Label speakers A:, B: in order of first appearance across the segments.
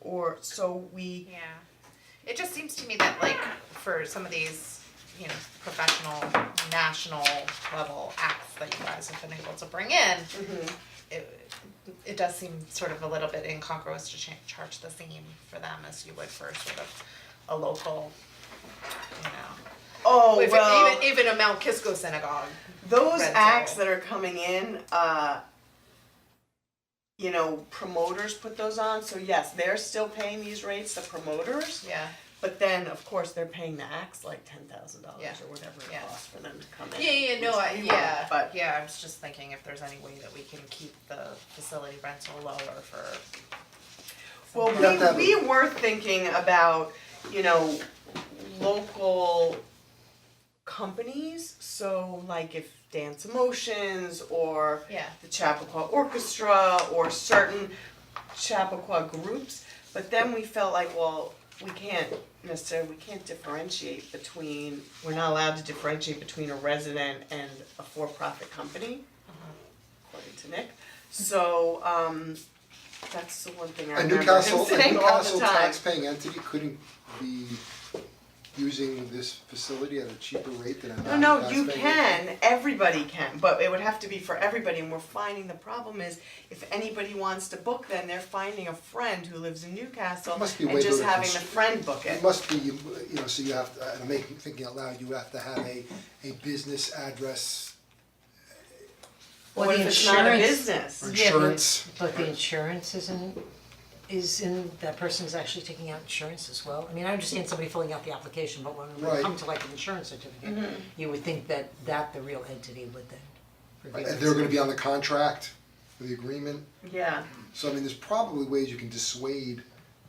A: or so we
B: Yeah, it just seems to me that like for some of these, you know, professional, national level acts that you guys have been able to bring in. It it does seem sort of a little bit incongruous to cha- charge the same for them as you would for sort of a local, you know.
C: Oh
B: If it-
C: well,
B: Even even a Mount Kisco synagogue,
C: those
B: rental.
C: acts that are coming in, uh, you know, promoters put those on. So yes, they're still paying these rates, the promoters.
B: yeah.
C: But then, of course, they're paying the acts like ten thousand
B: Yeah.
C: dollars or whatever it
B: Yeah.
C: costs for them to come in.
B: Yeah, yeah, no, I,
C: It's
B: yeah,
C: but-
B: yeah, I was just thinking if there's any way that we can keep the facility rental lower for.
C: Well,
B: some-
D: You have to have-
C: we, we were thinking about, you know, local companies, so like if Dance Emotions or
B: Yeah.
C: the Chappaqua Orchestra or certain Chappaqua groups, but then we felt like, well, we can't necessarily, we can't differentiate between, we're not allowed to differentiate between a resident and a for-profit company, according to Nick. So, um, that's the one thing I
D: A
C: remember him
D: Newcastle, a
C: saying all the
D: Newcastle
C: time.
D: taxpaying entity couldn't be using this facility at a cheaper rate than a
C: No,
D: non-taxpaying.
C: no, you
D: entity?
C: can, everybody can, but it would have to be for everybody, and we're finding the problem is, if anybody wants to book, then they're finding a friend who lives in Newcastle
D: It must be
C: and
D: way
C: just
D: better
C: having the
D: than-
C: friend book it.
D: It must be, you you know, so you have, to. I'm making, thinking out loud, you have to have a, a business address
E: Well,
C: What
E: the
C: if it's not a
E: insurance,
C: business?
D: or
E: Yeah, but-
D: insurance.
E: but the insurance isn't, is in, that person's actually taking out insurance as well. I mean, I understand somebody filling out the application, but when we
D: Right. Mm-hmm.
E: come to like an insurance certificate, you would think that that the real entity would then reveal
D: And Uh, they're gonna be on
E: itself.
D: the contract, or the agreement,
C: Yeah,
D: so I mean, there's probably ways you can dissuade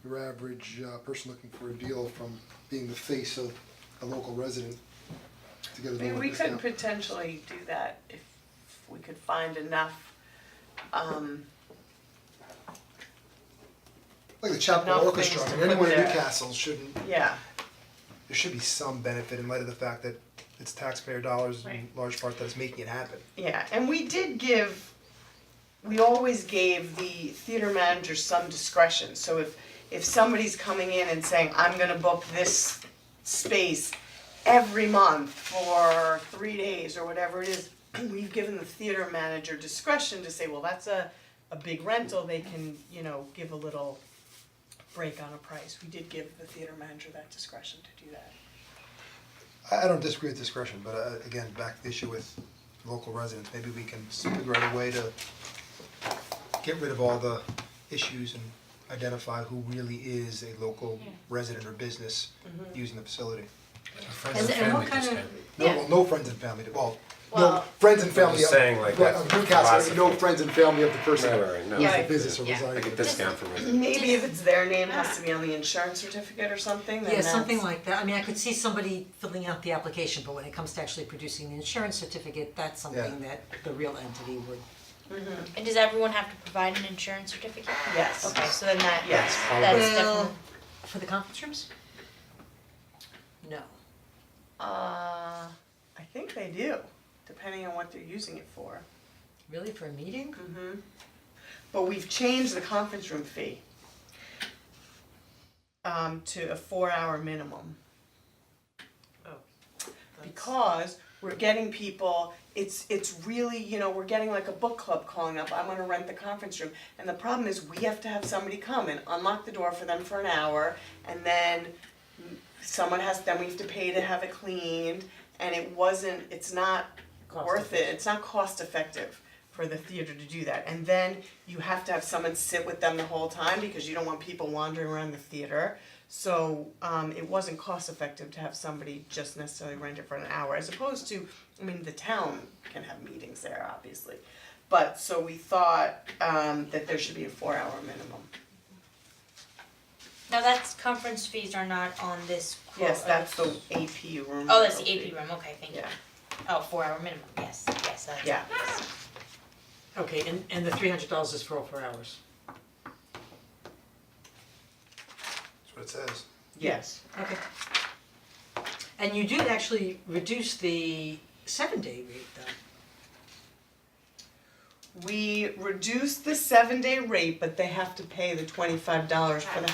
D: your average uh person looking for a deal from being the face of a local resident to get a
C: I
D: lower
C: mean, we could
D: discount.
C: potentially do that if we could find enough, um,
D: Like the Chapel
C: enough
D: Orchestra,
C: things
D: I
C: to
D: mean, anyone
C: put
D: in
C: there.
D: Newcastle shouldn't
C: yeah,
D: there should be some benefit in light of the fact that it's taxpayer dollars in large part that's making it happen.
C: yeah, and we did give, we always gave the theater manager some discretion, so if, if somebody's coming in and saying, I'm gonna book this space every month for three days or whatever it is, we've given the theater manager discretion to say, well, that's a, a big rental, they can, you know, give a little break on a price, we did give the theater manager that discretion to do that.
D: I I don't disagree with discretion, but uh again, back to the issue with local residents, maybe we can figure out a way to get rid of all the issues and identify who really is a local resident or business
B: Mm-hmm.
D: using the facility.
E: And-
F: Friends and
E: and
F: family
E: what
F: just
E: kind
F: had,
D: No, well, no friends and family, well, no,
B: Well-
D: friends and
F: I'm
D: family
F: just
D: of,
F: saying, like,
D: right,
F: that's
D: of Newcastle,
F: philosophy.
D: no friends and family of the person
F: Right, right, right, no.
D: who's the
C: Right.
D: business or
B: Yeah.
D: residing.
F: like a discount for residents.
C: Maybe if it's their name has to be on the insurance certificate or something, then
E: Yeah,
C: that's.
E: something like that. I mean, I could see somebody filling out the application, but when it comes to actually producing the insurance certificate, that's something that the real entity would
G: And does everyone have to provide an insurance certificate?
C: Yes.
G: Okay, so then that,
C: Yes.
G: that's
E: Well,
G: definitely,
E: for the conference rooms? No.
C: Uh, I think they do, depending on what they're using it for.
E: Really, for a meeting?
D: Mm-hmm.
C: But we've changed the conference room fee um, to a four-hour minimum. Because we're getting people, it's, it's really, you know, we're getting like a book club calling up, I'm gonna rent the conference room. And the problem is, we have to have somebody come and unlock the door for them for an hour, and then someone has, then we have to pay to have it cleaned, and it wasn't, it's not
E: Cost
C: worth it, it's not cost effective for the theater to do that. And then you have to have someone sit with them the whole time because you don't want people wandering around the theater. So um it wasn't cost effective to have somebody just necessarily rent it for an hour as opposed to, I mean, the town can have meetings there, obviously. But so we thought um that there should be a four hour minimum.
G: now that's, conference fees are not on this quote.
C: Yes,
G: are
C: that's
G: they?
C: the AP room.
G: Oh, that's the AP room, okay, thank you.
C: Yeah,
G: Oh, four hour minimum, yes, yes, that's.
C: yeah.
E: Okay, and, and the three hundred dollars is for all four hours?
D: That's what it says.
C: Yes.
E: Okay. And you did actually reduce the seven-day rate though.
C: We reduced the seven day rate, but they have to pay the twenty five dollars for the